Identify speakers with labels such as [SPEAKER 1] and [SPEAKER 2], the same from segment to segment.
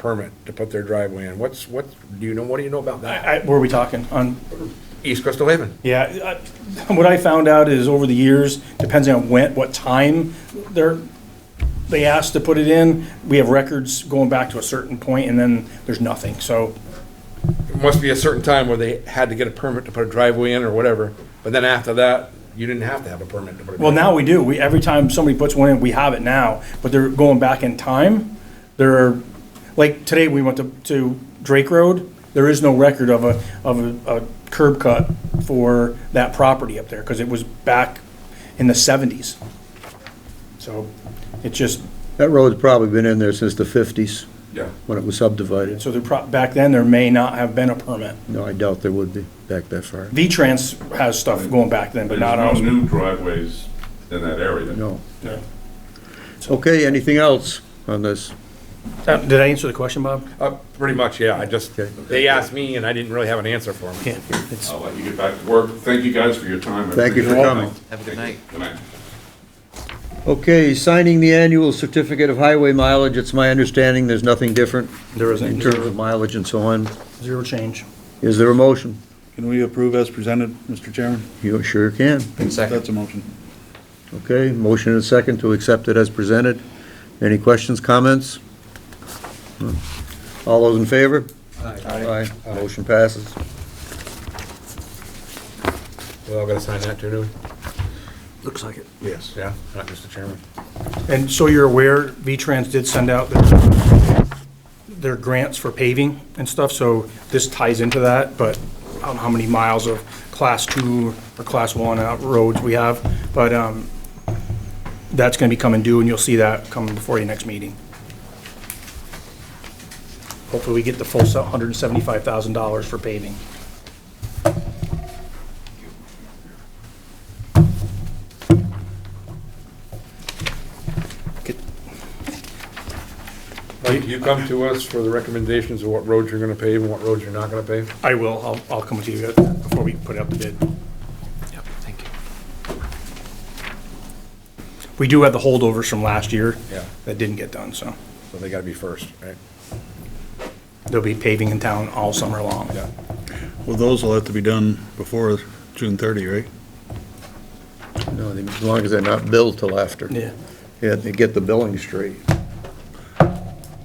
[SPEAKER 1] permit to put their driveway in. What's, what, do you know, what do you know about that?
[SPEAKER 2] I, where are we talking? On,
[SPEAKER 1] East Crystal Haven.
[SPEAKER 2] yeah, I, what I found out is over the years, depends on when, what time they're, they asked to put it in. We have records going back to a certain point and then there's nothing. So
[SPEAKER 1] It must be a certain time where they had to get a permit to put a driveway in or whatever, but then after that, you didn't have to have a permit to put a driveway.
[SPEAKER 2] Well, now we do. We, every time somebody puts one in, we have it now, but they're going back in time. They're, like, today we went to, to Drake Road. There is no record of a, of a, a curb cut for that property up there, because it was back in the seventies. So it just,
[SPEAKER 3] That road's probably been in there since the 50s,
[SPEAKER 1] Yeah.
[SPEAKER 3] when it was subdivided.
[SPEAKER 2] so they're pro, back then, there may not have been a permit.
[SPEAKER 3] No, I doubt there would be back that far.
[SPEAKER 2] V-Trans has stuff going back then, but
[SPEAKER 4] There's
[SPEAKER 2] not
[SPEAKER 4] no
[SPEAKER 2] ours.
[SPEAKER 4] new driveways in that area.
[SPEAKER 3] No.
[SPEAKER 2] Yeah.
[SPEAKER 3] Okay, anything else on this?
[SPEAKER 2] Uh, Did I answer the question, Bob?
[SPEAKER 1] Uh, pretty much, yeah, I just,
[SPEAKER 3] Okay.
[SPEAKER 1] they asked me and I didn't really have an answer for them.
[SPEAKER 2] Yeah. it's-
[SPEAKER 4] I'll let you get back to work. Thank you guys for your time. I
[SPEAKER 3] Thank you for
[SPEAKER 4] appreciate it.
[SPEAKER 3] coming.
[SPEAKER 5] Have a good night.
[SPEAKER 4] Good night.
[SPEAKER 3] Okay, signing the annual certificate of highway mileage, it's my understanding there's nothing different
[SPEAKER 2] There isn't.
[SPEAKER 3] in terms of mileage and so on.
[SPEAKER 2] Zero change.
[SPEAKER 3] Is there a motion?
[SPEAKER 6] Can we approve as presented, Mr. Chairman?
[SPEAKER 3] You sure can.
[SPEAKER 5] Second.
[SPEAKER 6] That's a motion.
[SPEAKER 3] Okay, motion and second to accept it as presented. Any questions, comments? Hmm. All those in favor? Aye. Aye, motion passes.
[SPEAKER 1] Well, I gotta sign that too, do we?
[SPEAKER 2] Looks like it.
[SPEAKER 1] Yes. Yeah, not Mr. Chairman.
[SPEAKER 2] And so you're aware, V-Trans did send out their- their grants for paving and stuff, so this ties into that, but I don't know how many miles of Class 2 or Class 1 out roads we have, but um, that's going to be coming due, and you'll see that coming before your next meeting. Hopefully, we get the full se- $175,000 for paving.
[SPEAKER 1] Mike, you come to us for the recommendations of what roads you're gonna pave and what roads you're not gonna pave?
[SPEAKER 2] I will, I'll- I'll come to you before we put it out the bid.
[SPEAKER 5] Yep, thank you.
[SPEAKER 2] We do have the holdovers from last year
[SPEAKER 1] Yeah.
[SPEAKER 2] that didn't get done, so.
[SPEAKER 1] So they gotta be first, right?
[SPEAKER 2] There'll be paving in town all summer long.
[SPEAKER 1] Yeah.
[SPEAKER 6] Well, those will have to be done before June 30, right?
[SPEAKER 3] No, as long as they're not billed till after.
[SPEAKER 2] Yeah.
[SPEAKER 3] Yeah, they get the billing straight.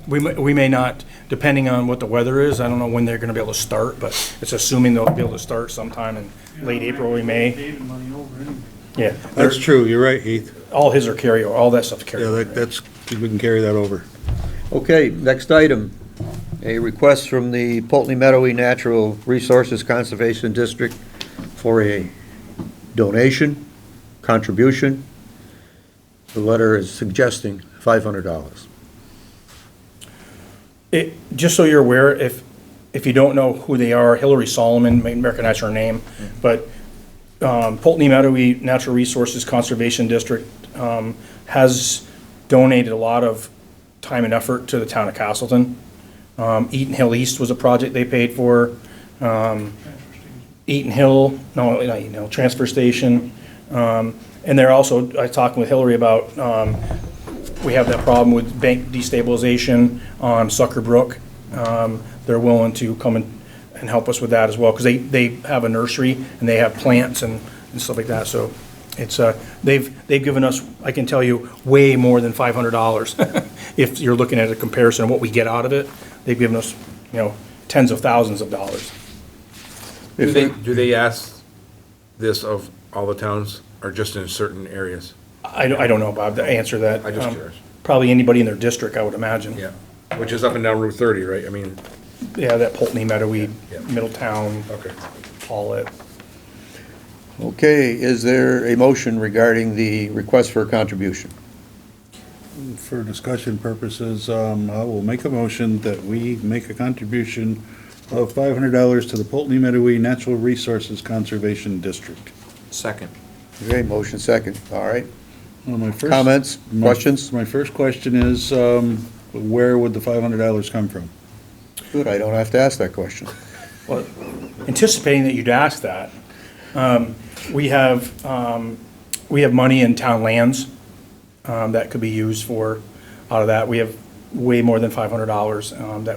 [SPEAKER 2] We may, we may not, depending on what the weather is, I don't know when they're gonna be able to start, but it's assuming they'll be able to start sometime in late April, early May. Yeah, they're-
[SPEAKER 6] That's true, you're right, Heath.
[SPEAKER 2] all his are carryover, all that stuff's
[SPEAKER 6] Yeah, that-
[SPEAKER 2] carryover.
[SPEAKER 6] that's, we can carry that over.
[SPEAKER 3] Okay, next item, a request from the Pulteney Meadowy Natural Resources Conservation District for a donation, contribution. The letter is suggesting $500.
[SPEAKER 2] It, just so you're aware, if, if you don't know who they are, Hillary Solomon, may recognize her name, but um, Pulteney Meadowy Natural Resources Conservation District um, has donated a lot of time and effort to the town of Castleton. Um, Eaton Hill East was a project they paid for. Um, Eaton Hill, no, not Eaton Hill, Transfer Station. Um, And they're also, I talked with Hillary about, um, we have that problem with bank destabilization on Sucker Brook. Um, They're willing to come and, and help us with that as well, because they, they have a nursery and they have plants and, and stuff like that, so it's, uh, they've, they've given us, I can tell you, way more than five hundred dollars. If you're looking at a comparison of what we get out of it, they've given us, you know, tens of thousands of dollars.
[SPEAKER 1] Do they, do they ask this of all the towns or just in certain areas?
[SPEAKER 2] I, don't- I don't know, Bob, to answer that.
[SPEAKER 1] I just
[SPEAKER 2] Um,
[SPEAKER 1] curious.
[SPEAKER 2] Probably anybody in their district, I would imagine.
[SPEAKER 1] Yeah, which is up and down Route thirty, right? I mean,
[SPEAKER 2] Yeah, that Pulteney, Meadowee,
[SPEAKER 1] Yeah.
[SPEAKER 2] Middletown,
[SPEAKER 1] okay.
[SPEAKER 2] Paulette.
[SPEAKER 3] Okay, is there a motion regarding the request for a contribution?
[SPEAKER 6] For discussion purposes, um, I will make a motion that we make a contribution of $500 to the Pulteney Meadowy Natural Resources Conservation District.
[SPEAKER 5] Second.
[SPEAKER 3] Okay, motion second, all right.
[SPEAKER 6] Well, my first-
[SPEAKER 3] Comments,
[SPEAKER 6] my-
[SPEAKER 3] questions?
[SPEAKER 6] My first question is, um, where would the $500 come from?
[SPEAKER 3] Good, I don't have to ask that question.
[SPEAKER 2] Well, anticipating that you'd ask that, um, we have, um, we have money in town lands um, that could be used for, out of that. We have way more than $500 um, that